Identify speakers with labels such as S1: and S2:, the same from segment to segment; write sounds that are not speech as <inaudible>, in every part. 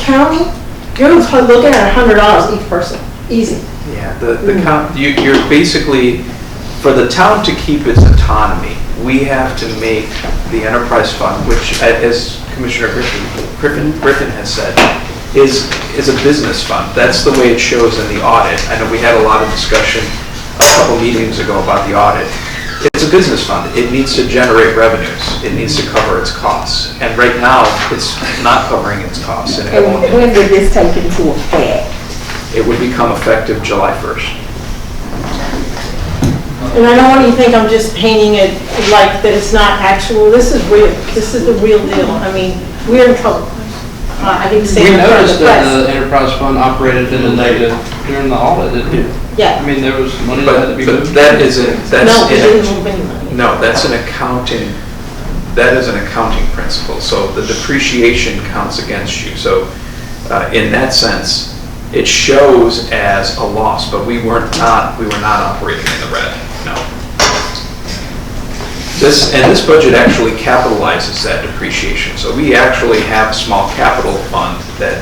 S1: county, you're looking at a hundred dollars each person, easy.
S2: Yeah, the, the, com- you- you're basically, for the town to keep its autonomy, we have to make the enterprise fund, which, a- as Commissioner Griffin- Griffin, Griffin has said, is, is a business fund. That's the way it shows in the audit. I know we had a lot of discussion a couple meetings ago about the audit. It's a business fund. It needs to generate revenues. It needs to cover its costs. And right now, it's not covering its costs, and it
S3: And
S2: won't,
S3: when did this take into effect?
S2: it would become effective July 1st.
S1: And I don't want you to think I'm just painting it like that it's not actual, this is real, this is the real deal, I mean, we're in trouble. Uh, I didn't say
S4: We
S1: it in front of
S4: noticed
S1: the
S4: that uh,
S1: press.
S4: the enterprise fund operated in the negative during the audit, didn't we? I
S1: Yeah,
S4: mean, there was money that had to
S2: But
S4: be
S2: but
S4: moved.
S2: that isn't, that's
S1: no, we didn't
S2: in,
S1: move any money.
S2: no, that's an accounting, that is an accounting principle. So the depreciation counts against you. So uh, in that sense, it shows as a loss, but we weren't not, we were not operating in the red, no. This, and this budget actually capitalizes that depreciation. So we actually have a small capital fund that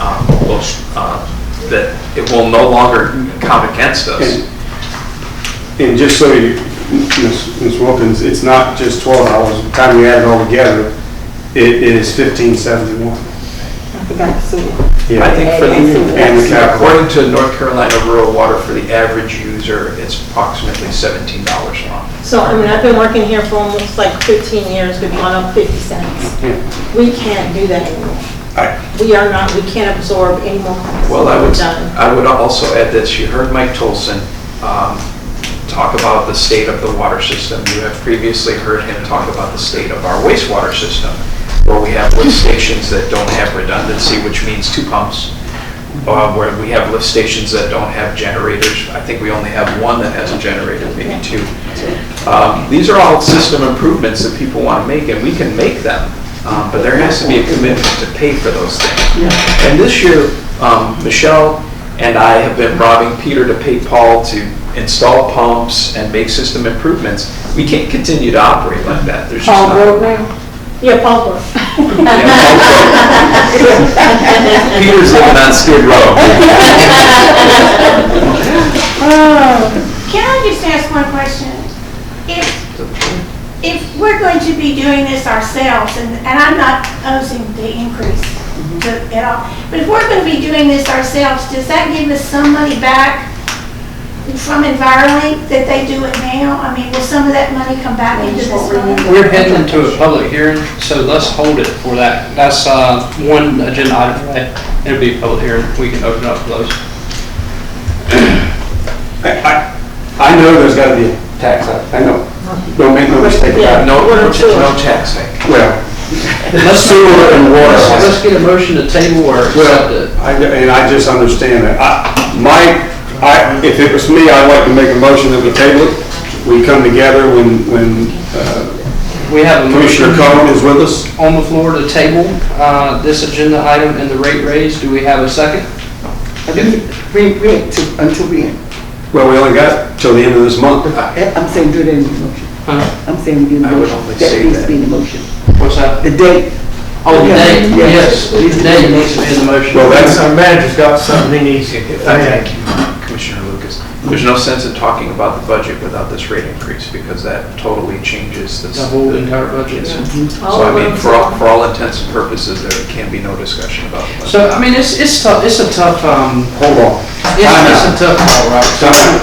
S2: um, will, uh, that it will no longer count against us.
S5: And- And just so you, Ms. Ms. Wilkins, it's not just twelve dollars, by the time you add it all together, it is fifteen seventy-one.
S3: I forgot to see.
S2: I think for
S5: And the
S2: the,
S5: capital.
S2: according to North Carolina Rural Water, for the average user, it's approximately seventeen dollars a month.
S1: So, I mean, I've been working here for almost like 15 years, we've gone up 50 cents.
S5: Yeah.
S1: We can't do that anymore.
S5: Right.
S1: We are not, we can't absorb any more costs.
S2: Well, I
S1: We're
S2: would,
S1: done.
S2: I would also add this, you heard Mike Tolson um, talk about the state of the water system. You have previously heard him talk about the state of our wastewater system, where we have lift stations that don't have redundancy, which means two pumps, uh, where we have lift stations that don't have generators. I think we only have one that has a generator, maybe two. Um, These are all system improvements that people want to make, and we can make them, um, but there has to be a commitment to pay for those things. And this year, um, Michelle and I have been robbing Peter to pay Paul to install pumps and make system improvements. We can't continue to operate like that. There's just
S3: Paul
S2: not- <laughs>
S3: Broke now?
S1: Yeah, Paul Brook.
S2: Yeah, Paul Brook. Peter's living on Skid Row.
S6: Can I just ask one question? If, if we're going to be doing this ourselves, and, and I'm not opposing the increase to- at all, but if we're going to be doing this ourselves, does that give us some money back from EnviroLink that they do it now? I mean, will some of that money come back into this fund?
S4: We're heading to a public hearing, so let's hold it for that. That's uh, one agenda item, right? It'll be a public hearing, we can open up those.
S5: I, I- I know there's gotta be a tax, I I know, don't make no mistake about it.
S2: No, no no tax hike.
S5: Well,
S4: Let's
S5: Sewer and water.
S4: Let's let's get a motion to table or accept
S5: Well,
S4: it.
S5: I- and I just understand that. I- My, I, if it was me, I'd like to make a motion that we table it. We come together when, when uh,
S4: We have a motion
S5: Commissioner Cohen is with us.
S4: on the floor to table uh, this agenda item and the rate raise. Do we have a second?
S7: I mean, We, we, to- until we,
S5: Well, we only got till the end of this month.
S7: I'm saying do that in the motion.
S4: Huh?
S7: I'm saying do the
S2: I would
S7: motion.
S2: only say
S7: That needs
S2: that.
S7: to be in the motion.
S4: What's that?
S7: The date.
S4: Oh, the date,
S7: Yeah.
S4: yes, the date needs to be in the motion.
S5: Well, that's,
S8: Our manager's got something he needs to get.
S2: Thank you, Commissioner Lucas. There's no sense in talking about the budget without this rate increase, because that totally changes the...
S4: The whole entire budget.
S2: So I mean, for all, for all intents and purposes, there can be no discussion about the budget.
S4: So, I mean, it's, it's tough, it's a tough, um,
S5: hold on.
S4: it's, it's a tough call, right?
S5: Time.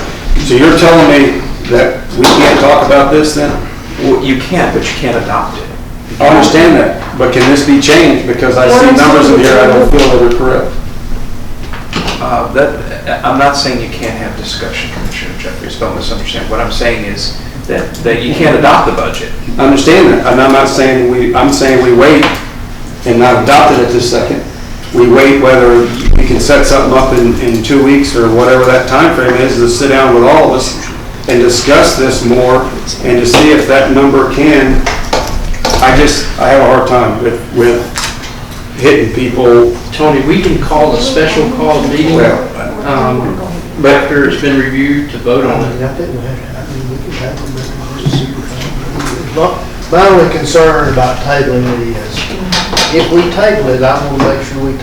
S5: So you're telling me that we can't talk about this then?
S2: Well, You can, but you can't adopt it.
S5: I understand that, but can this be changed? Because I see numbers in here I don't feel that are correct.
S2: Uh, That, I'm not saying you can't have discussion, Commissioner Jeffries, don't misunderstand. What I'm saying is that, that you can't adopt the budget.
S5: I understand that, and I'm not saying we, I'm saying we wait and not adopt it at this second. We wait whether we can set something up in, in two weeks or whatever that time frame is, to sit down with all of us and discuss this more and to see if that number can, I just, I have a hard time with, with hitting people.
S4: Tony, we can call a special call meeting,
S5: Well,
S4: um,
S5: but
S4: after it's been reviewed to vote on it.
S8: My only concern about tabling it is, if we table it, I'm gonna make sure we